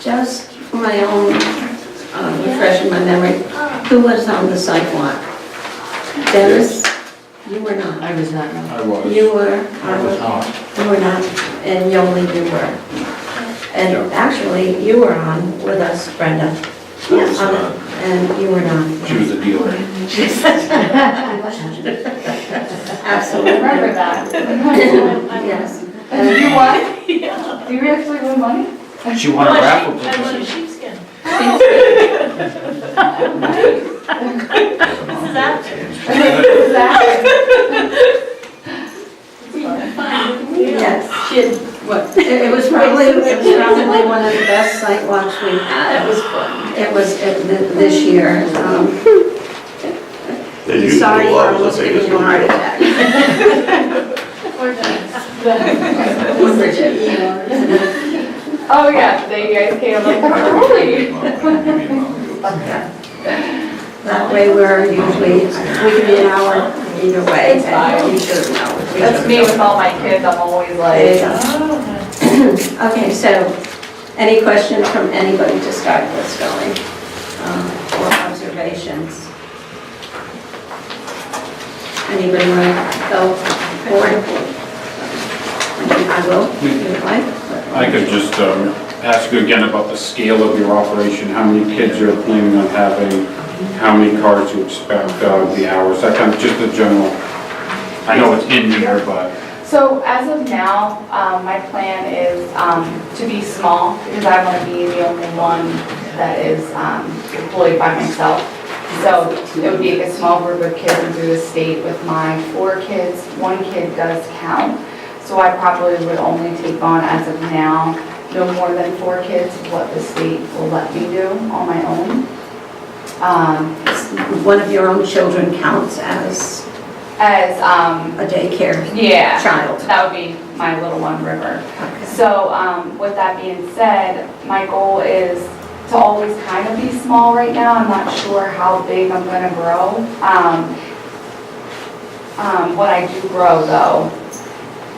Just for my own uh, refreshing my memory, who was on the sidewalk? Dennis, you were not. I was not, no. I was. You were, I was on. you were not, and Yoli, you were. And actually, you were on with us, Brenda. I was On- not. And you were not. She was a dealer. Absolutely. Remember that. Yes. And You what? Yeah. Do you actually win money? She won a raffle I want a ticket. sheepskin. This is This after. Exactly. Yes, she had, what, it it was probably, it was probably one of the best sidewalks we had. It Ah, was fun. It was it- th- this year. um, They used to Sorry for love the almost giving biggest you a heart one. attack. We're done. Bridget. Oh, yeah, they, you guys came, I'm like, holy. That way we're usually, we can be an hour either way. It's fine. and You should know. We That's should me know. with all my kids, I'm always like, Oh, Okay, so, any questions from anybody to start this going, um, or observations? Anybody want to go forward? I will, if you'd like. I could just um, ask you again about the scale of your operation, how many kids you're planning on having, how many cars you expect, uh, the hours, that kind of, just the general. I know it's in here, but So as of now, um, my plan is um, to be small because I want to be the only one that is um, employed by myself. So it would be a small group of kids and through the state with my four kids. One kid does count. So I probably would only take on as of now, no more than four kids, what the state will let me do on my own. Um, One of your own children counts as As, um, a daycare yeah, child. that would be my little one, River. Okay. So um, with that being said, my goal is to always kind of be small right now. I'm not sure how big I'm going to grow. Um, um, What I do grow though,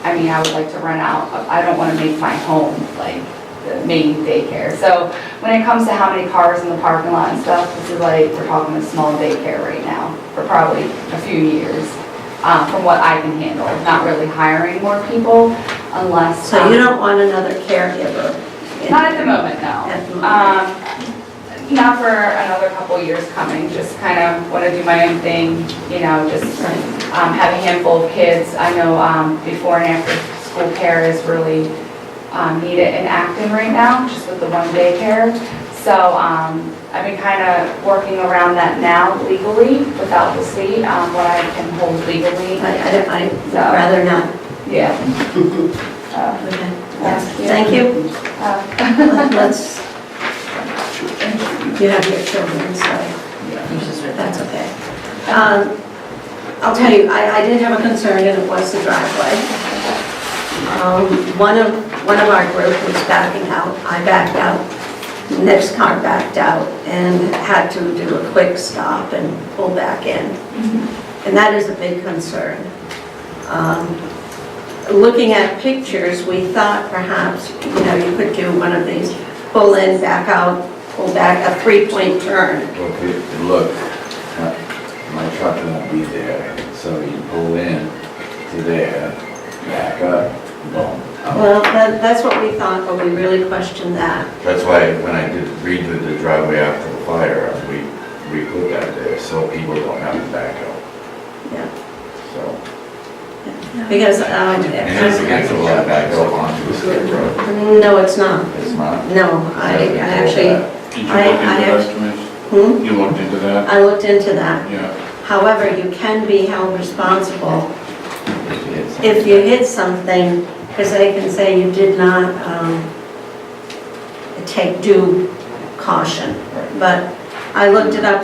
I mean, I would like to rent out, I don't want to make my home like the main daycare. So when it comes to how many cars in the parking lot and stuff, this is like, we're talking a small daycare right now for probably a few years, uh, from what I can handle. Not really hiring more people unless. So you um, don't want another caregiver? in- not at the moment, no. At the moment. Um, not for another couple years coming, just kind of want to do my own thing, you know, just um, have a handful of kids. I know um, before and after school care is really um, needed in Acton right now, just with the one daycare. So um, I've been kind of working around that now legally without the state, um, what I can hold legally. I, I- I'd rather not. Yeah. Uh, Okay. Thank you. Thank you. uh, Let's, you have your children, so that's okay. Um, I'll tell you, I, I did have a concern, and it was the driveway. Um, One of, one of our group was backing out, I backed out, next car backed out, and had to do a quick stop and pull back in. And that is a big concern. Um, looking at pictures, we thought perhaps, you know, you could do one of these pull in, back out, pull back, a three-point turn. Okay, look, uh, my truck won't be there, so you pull in to there, back up, boom. out. Well, that, that's what we thought, but we really questioned that. That's why when I did redid the driveway after the fire, we, we put that there, so people don't have to back out, Yeah, so. Because, um, And it's against the law to back out onto a state road, no, it's not. it's not. No, I, I actually, did you look into I- I that, actually- Denise? hmm, You looked into that? I looked into that. Yeah. However, you can be held responsible It's- if you hit something, because they can say you did not um, take due caution. But I looked it up,